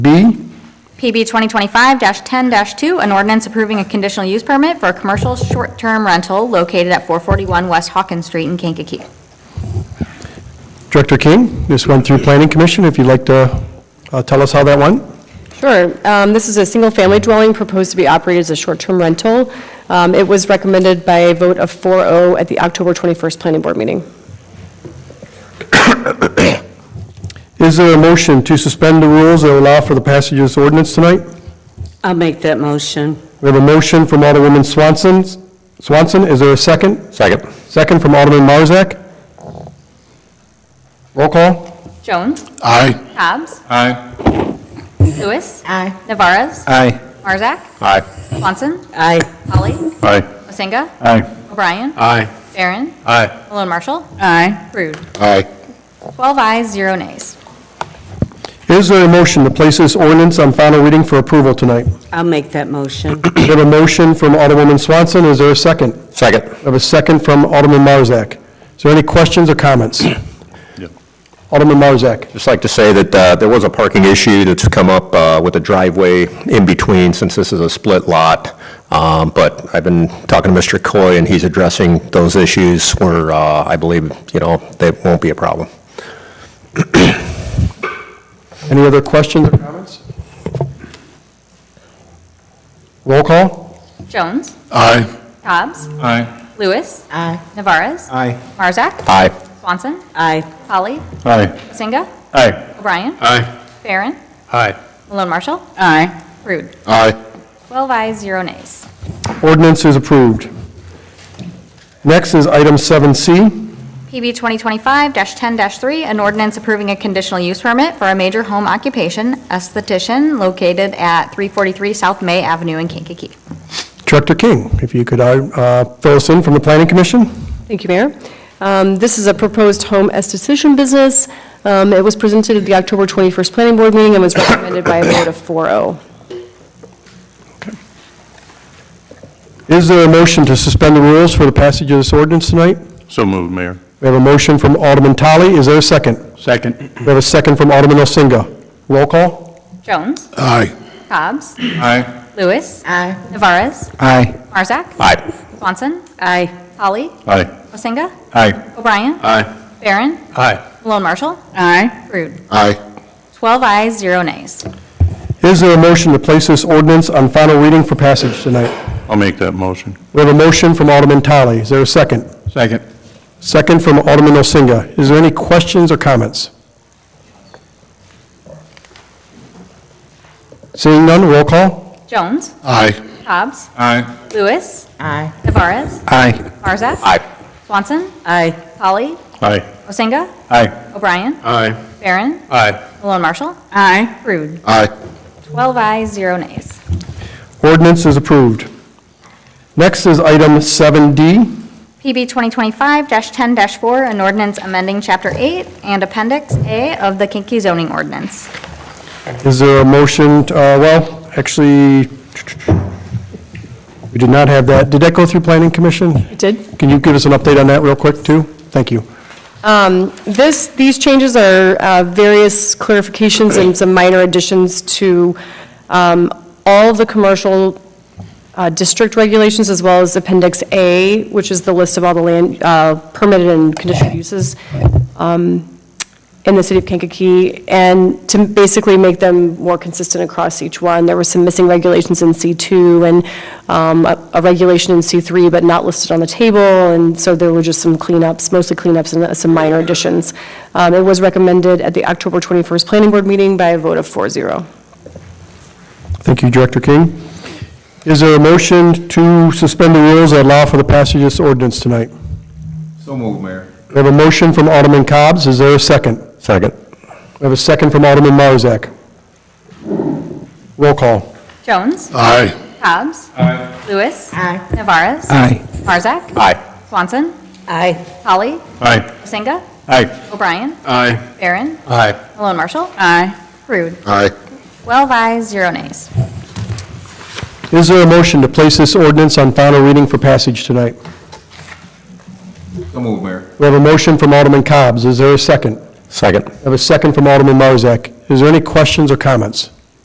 B, PB 2025-10-2, an ordinance approving a conditional use permit for a commercial short-term rental located at 441 West Hawkins Street in Kankakee. Director King, this went through Planning Commission, if you'd like to uh, tell us how that went. Sure. Um, This is a single-family dwelling proposed to be operated as a short-term rental. Um, It was recommended by a vote of 4-0 at the October 21st Planning Board meeting. Is there a motion to suspend the rules that allow for the passage of this ordinance tonight? I'll make that motion. We have a motion from Alderwoman Swanson. Swanson, is there a second? Second. Second from Alderman Marzak. Roll call. Jones. Aye. Cobb's. Aye. Lewis. Aye. Navarez. Aye. Marzak. Aye. Swanson. Aye. Polly. Aye. Masinga. Aye. O'Brien. Aye. Barron. Aye. Malone Marshall. Aye. Rude. Aye. 12 ayes, 0 nays. Is there a motion to place this ordinance on final reading for approval tonight? I'll make that motion. We have a motion from Alderwoman Swanson, is there a second? Second. We have a second from Alderman Marzak. Is there any questions or comments? Alderman Marzak. Just like to say that uh, there was a parking issue that's come up uh, with a driveway in between, since this is a split lot. Um, But I've been talking to Mr. Coy, and he's addressing those issues where uh, I believe, you know, they won't be a problem. Any other questions or comments? Roll call? Jones. Aye. Cobb's. Aye. Lewis. Aye. Navarez. Aye. Marzak. Aye. Swanson. Aye. Polly. Aye. Masinga. Aye. O'Brien. Aye. Barron. Aye. Malone Marshall. Aye. Rude. Aye. 12 ayes, 0 nays. Ordinance is approved. Next is item 7C. PB 2025-10-3, an ordinance approving a conditional use permit for a major home occupation esthetician located at 343 South May Avenue in Kankakee. Director King, if you could uh, fill us in from the Planning Commission? Thank you, Mayor. Um, This is a proposed home esthetician business. Um, It was presented at the October 21st Planning Board meeting and was recommended by a vote of 4-0. Is there a motion to suspend the rules for the passage of this ordinance tonight? So moved, Mayor. We have a motion from Alderman Tully. Is there a second? Second. We have a second from Alderman Elsinga. Roll call? Jones. Aye. Cobb's. Aye. Lewis. Aye. Navarez. Aye. Marzak. Aye. Swanson. Aye. Polly. Aye. Masinga. Aye. O'Brien. Aye. Barron. Aye. Malone Marshall. Aye. Rude. Aye. 12 ayes, 0 nays. Is there a motion to place this ordinance on final reading for passage tonight? I'll make that motion. We have a motion from Alderman Tully. Is there a second? Second. Second from Alderman Elsinga. Is there any questions or comments? Seeing none, roll call. Jones. Aye. Cobb's. Aye. Lewis. Aye. Navarez. Aye. Marzak. Aye. Swanson. Aye. Polly. Aye. Masinga. Aye. O'Brien. Aye. Barron. Aye. Malone Marshall. Aye. Rude. Aye. 12 ayes, 0 nays. Ordinance is approved. Next is item 7D. PB 2025-10-4, an ordinance amending Chapter 8 and Appendix A of the Kinky zoning ordinance. Is there a motion, to- uh, well, actually, we did not have that. Did that go through Planning Commission? It did? Can you give us an update on that real quick, too? Thank you. Um, This, these changes are uh, various clarifications and some minor additions to um, all the commercial uh, district regulations, as well as Appendix A, which is the list of all the land uh, permitted and conditional uses um, in the city of Kankakee, and to basically make them more consistent across each one. There were some missing regulations in C2 and um, a a regulation in C3, but not listed on the table, and so there were just some cleanups, mostly cleanups and uh, some minor additions. Um, It was recommended at the October 21st Planning Board meeting by a vote of 4-0. Thank you, Director King. Is there a motion to suspend the rules that allow for the passage of this ordinance tonight? So moved, Mayor. We have a motion from Alderman Cobb's. Is there a second? Second. We have a second from Alderman Marzak. Roll call. Jones. Aye. Cobb's. Lewis. Navarez. Aye. Marzak. Aye. Swanson. Aye. Polly. Aye. Masinga. Aye. O'Brien. Aye. Barron. Aye. Malone Marshall. Aye. Rude. Aye. 12 ayes, 0 nays. Is there a motion to place this ordinance on final reading for passage tonight? So moved, Mayor. We have a motion from Alderman Cobb's. Is there a second? Second. We have a second from Alderman Marzak. Is there any questions or comments?